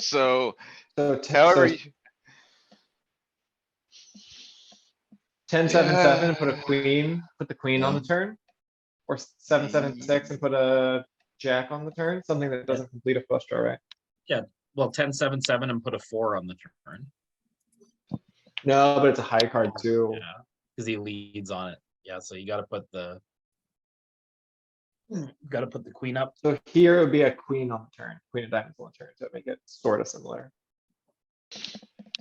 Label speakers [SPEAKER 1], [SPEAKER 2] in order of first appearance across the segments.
[SPEAKER 1] So
[SPEAKER 2] So t-
[SPEAKER 1] however,
[SPEAKER 2] so
[SPEAKER 1] you-
[SPEAKER 2] ten, seven, seven, and put a queen, put the queen on the turn. Or seven, seven, six and put a jack on the turn, something that doesn't complete a flush draw, right?
[SPEAKER 3] Well, ten, seven, seven and put a four on the turn.
[SPEAKER 2] No, but it's a high card too.
[SPEAKER 3] Yeah, because he leads on it. Yeah, so you gotta put the. Gotta put the queen up.
[SPEAKER 2] So here it would be a queen on the turn, queen of diamonds on the turn, so it'd make it sort of similar.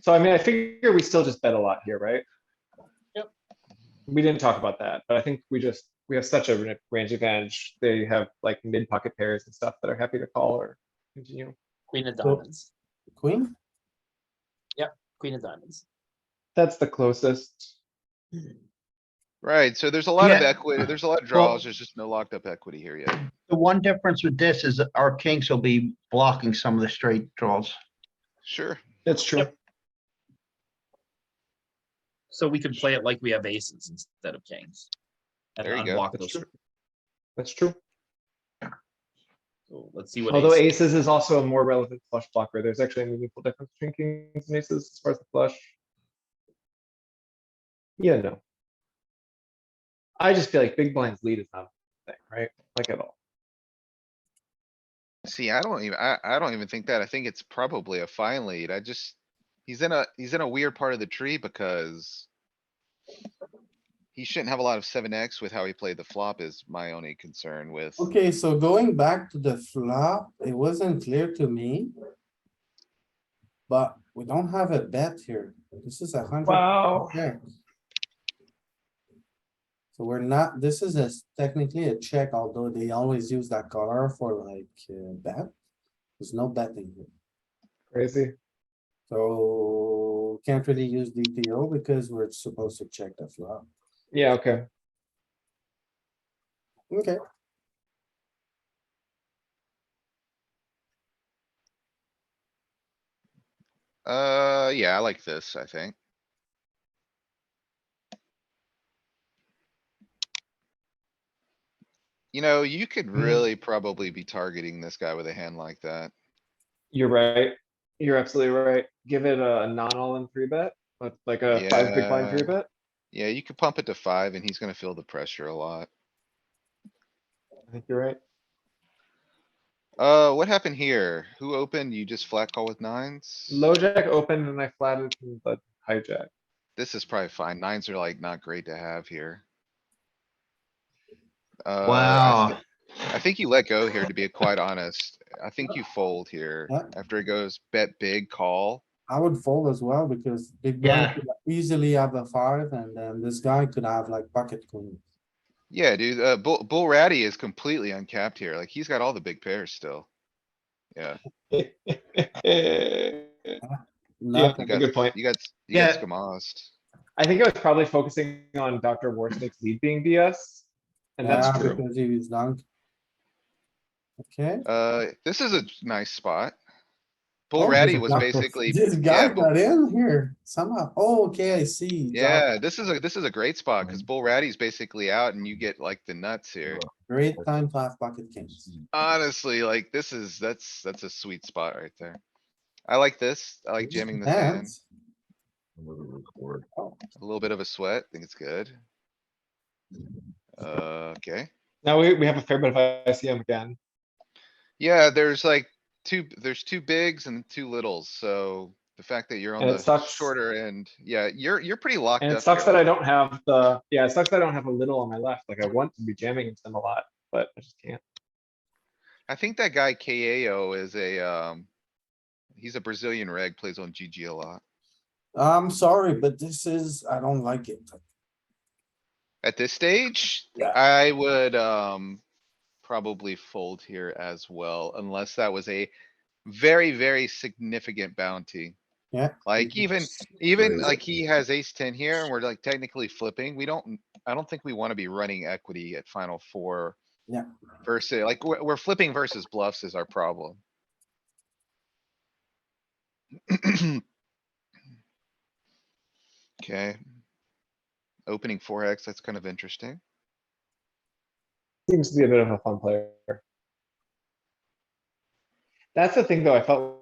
[SPEAKER 2] So I mean, I figure we still just bet a lot here, right?
[SPEAKER 3] Yep.
[SPEAKER 2] We didn't talk about that, but I think we just, we have such a ra- range advantage. They have like mid pocket pairs and stuff that are happy to call or continue.
[SPEAKER 3] Queen of
[SPEAKER 4] Cool.
[SPEAKER 3] diamonds,
[SPEAKER 4] Queen?
[SPEAKER 3] queen of diamonds.
[SPEAKER 2] That's the closest.
[SPEAKER 1] right, so there's a lot of
[SPEAKER 5] Yeah.
[SPEAKER 1] equity, there's a lot of draws, there's just no locked up equity here yet.
[SPEAKER 5] The one difference with this is that our kings will be blocking some of the straight draws.
[SPEAKER 1] Sure,
[SPEAKER 2] That's true.
[SPEAKER 3] So we could play it like we have aces instead of kings. And
[SPEAKER 1] There you go.
[SPEAKER 3] unblock
[SPEAKER 2] That's
[SPEAKER 3] those.
[SPEAKER 2] true. That's true.
[SPEAKER 3] So Let's see what.
[SPEAKER 2] Although
[SPEAKER 3] ace-
[SPEAKER 2] aces is also a more relevant flush blocker. There's actually a meaningful difference between kings and aces as far as the flush. Yeah, no. I just feel like big blinds lead is not a thing, right? Like at all.
[SPEAKER 1] see, I don't even, I, I don't even think that, I think it's probably a fine lead, I just. He's in a, he's in a weird part of the tree because. He shouldn't have a lot of seven X with how he played the flop is my only concern with,
[SPEAKER 4] Okay, so going back to the flop, it wasn't clear to me. But we don't have a bet here. This is a hundred.
[SPEAKER 2] Wow.
[SPEAKER 4] percent. So we're not, this is a s- technically a check, although they always use that color for like uh, bet. There's no betting here.
[SPEAKER 2] Crazy.
[SPEAKER 4] So can't really use DTO because we're supposed to check the flop.
[SPEAKER 2] Yeah, okay.
[SPEAKER 4] Okay,
[SPEAKER 1] uh, yeah, I like this, I think. You know, you could really probably be targeting this guy with a hand like that.
[SPEAKER 2] You're right. You're absolutely right. Give it a non all in three bet, but like a five big blind three
[SPEAKER 1] Yeah.
[SPEAKER 2] bet.
[SPEAKER 1] Yeah, you could pump it to five and he's gonna feel the pressure a lot.
[SPEAKER 2] I think you're right.
[SPEAKER 1] Uh, what happened here? Who opened? You just flat call with nines?
[SPEAKER 2] Low jack open and I flatted from the hijack.
[SPEAKER 1] This is probably fine. Nines are like not great to have here. Uh, I
[SPEAKER 5] Wow.
[SPEAKER 1] thi- I think you let go here, to be quite honest. I think you fold here
[SPEAKER 4] What?
[SPEAKER 1] after it goes bet big call.
[SPEAKER 4] I would fold as well because big blind
[SPEAKER 3] Yeah.
[SPEAKER 4] could easily have a five and then this guy could have like pocket queen.
[SPEAKER 1] Yeah, dude, uh, Bull, Bull Ratty is completely uncapped here. Like he's got all the big pairs still. Yeah,
[SPEAKER 2] Yeah,
[SPEAKER 4] Not
[SPEAKER 1] you
[SPEAKER 2] good point.
[SPEAKER 1] got, you got, you got
[SPEAKER 5] Yeah.
[SPEAKER 1] skamosed.
[SPEAKER 2] I think I was probably focusing on Dr. Warsnick's lead being BS. And that's
[SPEAKER 4] Yeah,
[SPEAKER 2] true.
[SPEAKER 4] Because he was dunk. Okay.
[SPEAKER 1] Uh, this is a nice spot.
[SPEAKER 4] Oh,
[SPEAKER 1] Bull
[SPEAKER 4] there's
[SPEAKER 1] Ratty
[SPEAKER 4] a
[SPEAKER 1] was
[SPEAKER 4] blocker.
[SPEAKER 1] basically,
[SPEAKER 4] This guy
[SPEAKER 1] yeah, Bull-
[SPEAKER 4] got in here somehow. Oh, okay, I see. Got
[SPEAKER 1] yeah, this is a, this is a great spot, cause Bull Ratty's basically out and you get like the nuts here.
[SPEAKER 4] Great time to have pocket kings.
[SPEAKER 1] Honestly, like this is, that's, that's a sweet spot right there. I like this. I like
[SPEAKER 4] Just
[SPEAKER 1] jamming this in.
[SPEAKER 4] depends.
[SPEAKER 1] A little bit of a sweat. I think it's good. Uh, okay.
[SPEAKER 2] Now we, we have a fair bit of ICM again.
[SPEAKER 1] Yeah, there's like two, there's two bigs and two littles, so the fact that you're on
[SPEAKER 2] And it
[SPEAKER 1] the
[SPEAKER 2] sucks-
[SPEAKER 1] shorter end, yeah, you're, you're pretty locked up.
[SPEAKER 2] And it sucks
[SPEAKER 1] here.
[SPEAKER 2] that I don't have the, yeah, it sucks that I don't have a little on my left. Like I want to be jamming into them a lot, but I just can't.
[SPEAKER 1] I think that guy KAO is a, um, he's a Brazilian reg, plays on GG a lot.
[SPEAKER 4] I'm sorry, but this is, I don't like it.
[SPEAKER 1] At this stage,
[SPEAKER 4] Yeah.
[SPEAKER 1] I would, um, probably fold here as well, unless that was a very, very significant bounty.
[SPEAKER 4] Yeah.
[SPEAKER 1] Like even, even like he has ace ten here and we're like technically flipping. We don't, I don't think we wanna be running equity at final four.
[SPEAKER 4] Yeah.
[SPEAKER 1] Versus, like, we're, we're flipping versus bluffs is our problem. Okay. Opening four X, that's kind of interesting.
[SPEAKER 2] Seems to be a bit of a fun player. That's the thing though, I felt